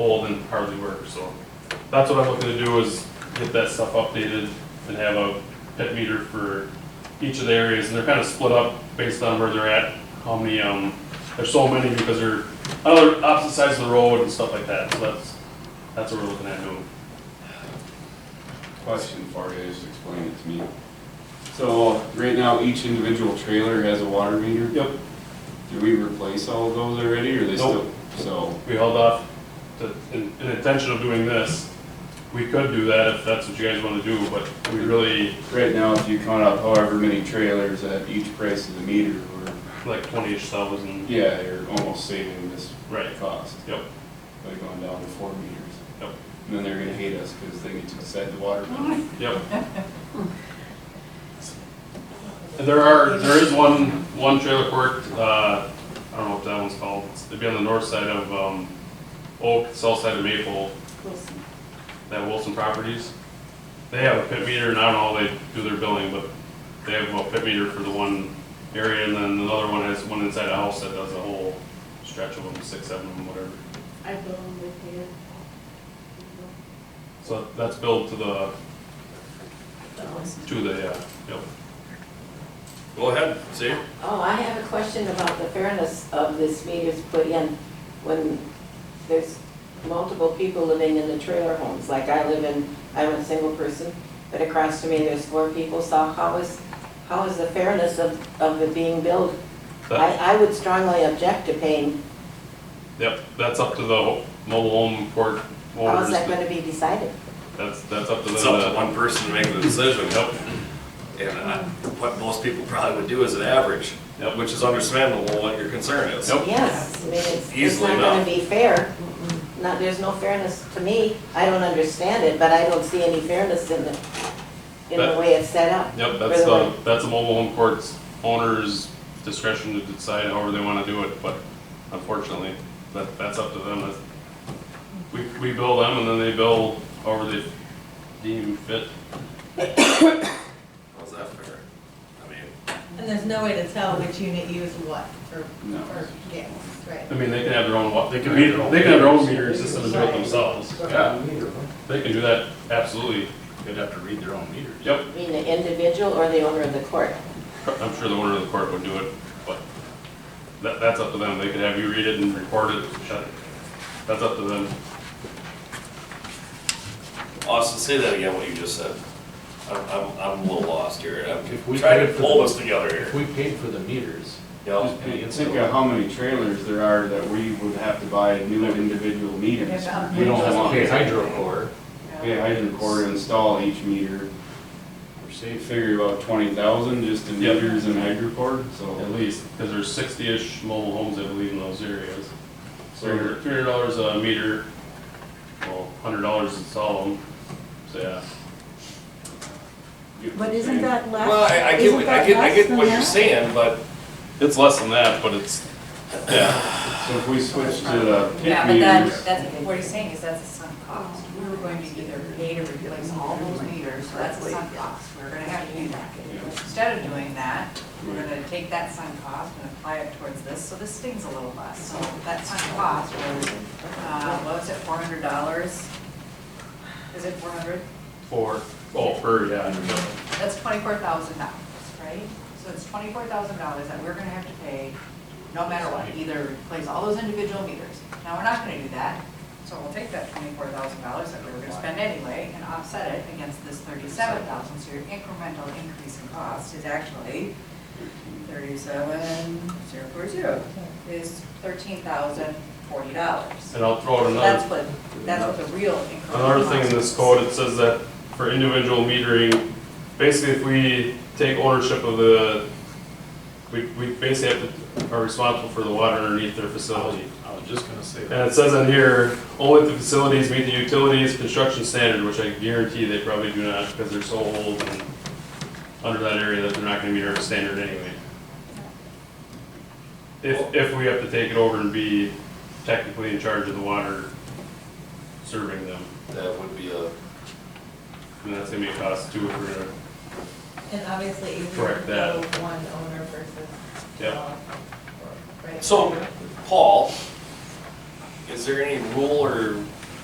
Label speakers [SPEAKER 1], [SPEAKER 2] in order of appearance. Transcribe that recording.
[SPEAKER 1] old and hardly work, so. That's what I'm looking to do is get that stuff updated and have a pit meter for each of the areas, and they're kind of split up based on where they're at, how many, um, there's so many because they're on other opposite sides of the road and stuff like that, so that's, that's what we're looking at doing.
[SPEAKER 2] Question for you, just explain it to me. So, right now, each individual trailer has a water meter.
[SPEAKER 1] Yep.
[SPEAKER 2] Did we replace all of those already, or they
[SPEAKER 1] Nope.
[SPEAKER 2] still? So,
[SPEAKER 1] We held off to, in, in intention of doing this, we could do that if that's what you guys want to do, but we really,
[SPEAKER 2] right now, if you count up however many trailers at each price of the meter, we're,
[SPEAKER 1] like twenty-ish thousand,
[SPEAKER 2] yeah, you're almost saving this
[SPEAKER 1] right,
[SPEAKER 2] cost
[SPEAKER 1] yep,
[SPEAKER 2] by going down to four meters.
[SPEAKER 1] Yep.
[SPEAKER 2] And then they're gonna hate us, because they get to decide the water bill.
[SPEAKER 1] yep. And there are, there is one, one trailer park, uh, I don't know what that one's called, it'd be on the north side of, um, Oak, south side of Maple, that Wilson Properties. They have a pit meter, and I don't know how they do their billing, but they have a pit meter for the one area, and then another one has one inside a house that does a whole stretch of them, six, seven, of them, whatever.
[SPEAKER 3] I bill them with you.
[SPEAKER 1] So that's billed to the, to the, yeah, yep. Go ahead, see?
[SPEAKER 4] Oh, I have a question about the fairness of this meters put in when there's multiple people living in the trailer homes. Like I live in, I'm a single person, but across from me, there's four people, so how is, how is the fairness of, of it being billed?
[SPEAKER 1] That-
[SPEAKER 4] I, I would strongly object to paying,
[SPEAKER 1] Yep, that's up to the mobile home court
[SPEAKER 4] how
[SPEAKER 1] owners.
[SPEAKER 4] is that gonna be decided?
[SPEAKER 1] That's, that's up to them.
[SPEAKER 5] It's up
[SPEAKER 1] to-
[SPEAKER 5] to one person to make the decision.
[SPEAKER 1] Yep,
[SPEAKER 5] And uh, what most people probably would do is an average,
[SPEAKER 1] Yep.
[SPEAKER 5] which is understandable what your concern is.
[SPEAKER 1] Yep.
[SPEAKER 4] Yes, I mean, it's, it's
[SPEAKER 5] Easily
[SPEAKER 4] not gonna
[SPEAKER 5] enough.
[SPEAKER 4] be fair. Not, there's no fairness to me, I don't understand it, but I don't see any fairness in the, in the
[SPEAKER 1] That-
[SPEAKER 4] way it's set up.
[SPEAKER 1] yep, that's
[SPEAKER 4] Really?
[SPEAKER 1] the, that's the mobile home court's owner's discretion to decide however they wanna do it, but unfortunately, that, that's up to them. That's- We, we bill them and then they bill however they deem fit.
[SPEAKER 5] How's that fair? I mean,
[SPEAKER 6] And there's no way to tell which unit used what for,
[SPEAKER 2] No.
[SPEAKER 6] for gas, right?
[SPEAKER 1] I mean, they can have their own, wa- they can meter, they can have their own metering system and do it themselves. Yeah, they can do that, absolutely.
[SPEAKER 7] They'd have to read their own meters.
[SPEAKER 1] Yep,
[SPEAKER 4] You mean the individual or the owner of the court?
[SPEAKER 1] I'm sure the owner of the court would do it, but that, that's up to them. They could have you read it and record it, shut it. That's up to them.
[SPEAKER 5] Austin, say that again, what you just said. I'm, I'm, I'm a little lost here.
[SPEAKER 7] If
[SPEAKER 5] I'm
[SPEAKER 7] we
[SPEAKER 5] trying
[SPEAKER 7] paid
[SPEAKER 5] to
[SPEAKER 7] for
[SPEAKER 5] pull
[SPEAKER 7] the-
[SPEAKER 5] this together
[SPEAKER 7] If
[SPEAKER 5] here.
[SPEAKER 7] we paid for the meters,
[SPEAKER 5] Yep.
[SPEAKER 2] Think think of how many trailers there are that we would have to buy new individual meters.
[SPEAKER 6] Yeah,
[SPEAKER 2] We don't want.
[SPEAKER 7] pay hydro core,
[SPEAKER 2] Pay hydro core to install each meter.
[SPEAKER 7] we're
[SPEAKER 2] They
[SPEAKER 7] safe.
[SPEAKER 2] figure about twenty thousand just in
[SPEAKER 1] Yep.
[SPEAKER 2] meters and hydro core, so.
[SPEAKER 1] At least, because there's sixty-ish mobile homes, I believe, in those areas. So
[SPEAKER 2] so
[SPEAKER 1] you're
[SPEAKER 2] you're-
[SPEAKER 1] three hundred dollars a meter, well, hundred dollars to install them, so yeah.
[SPEAKER 2] you-
[SPEAKER 8] But isn't that less?
[SPEAKER 5] Well, I, I get, what- I get, I get what you're saying, but
[SPEAKER 1] It's less than that, but it's, yeah,
[SPEAKER 2] So if we switch to the
[SPEAKER 8] Yeah,
[SPEAKER 2] pit
[SPEAKER 8] but that,
[SPEAKER 2] meters,
[SPEAKER 8] that's, what he's saying is that's a sunk cost. We were going to either pay to replace all those meters, so that's a sunk cost. We're gonna have to do that. Instead of doing that, we're gonna take that sunk cost and apply it towards this, so this stings a little less. So that sunk cost was, uh, what was it, four hundred dollars? Is it four hundred?
[SPEAKER 1] for, oh, per, yeah,
[SPEAKER 8] That's twenty-four thousand dollars, right? So it's twenty-four thousand dollars that we're gonna have to pay, no matter what, either replace all those individual meters. Now, we're not gonna do that, so we'll take that twenty-four thousand dollars that we were gonna spend anyway and offset it against this thirty-seven thousand, so your incremental increase in cost is actually thirty-seven, zero four zero, is thirteen thousand forty dollars.
[SPEAKER 1] and I'll throw out
[SPEAKER 8] So that's
[SPEAKER 1] Oh, another,
[SPEAKER 8] what, that's what the real incremental
[SPEAKER 1] another thing in
[SPEAKER 8] cost
[SPEAKER 1] this
[SPEAKER 8] is.
[SPEAKER 1] code, it says that for individual metering, basically if we take ownership of the, we, we basically have to, are responsible for the water underneath their facility.
[SPEAKER 7] I was just gonna say
[SPEAKER 1] And
[SPEAKER 7] that.
[SPEAKER 1] it says on here, only if the facilities meet the utilities construction standard, which I guarantee they probably do not because they're so old and under that area that they're not gonna meet our standard anyway. If, if we have to take it over and be technically in charge of the water serving them,
[SPEAKER 5] that would be a,
[SPEAKER 1] then that's gonna be a cost too if we're gonna,
[SPEAKER 6] And obviously, you
[SPEAKER 1] Correct
[SPEAKER 6] would
[SPEAKER 1] that.
[SPEAKER 6] go one owner versus.
[SPEAKER 1] Yep.
[SPEAKER 6] all, right?
[SPEAKER 5] so, Paul, is there any rule or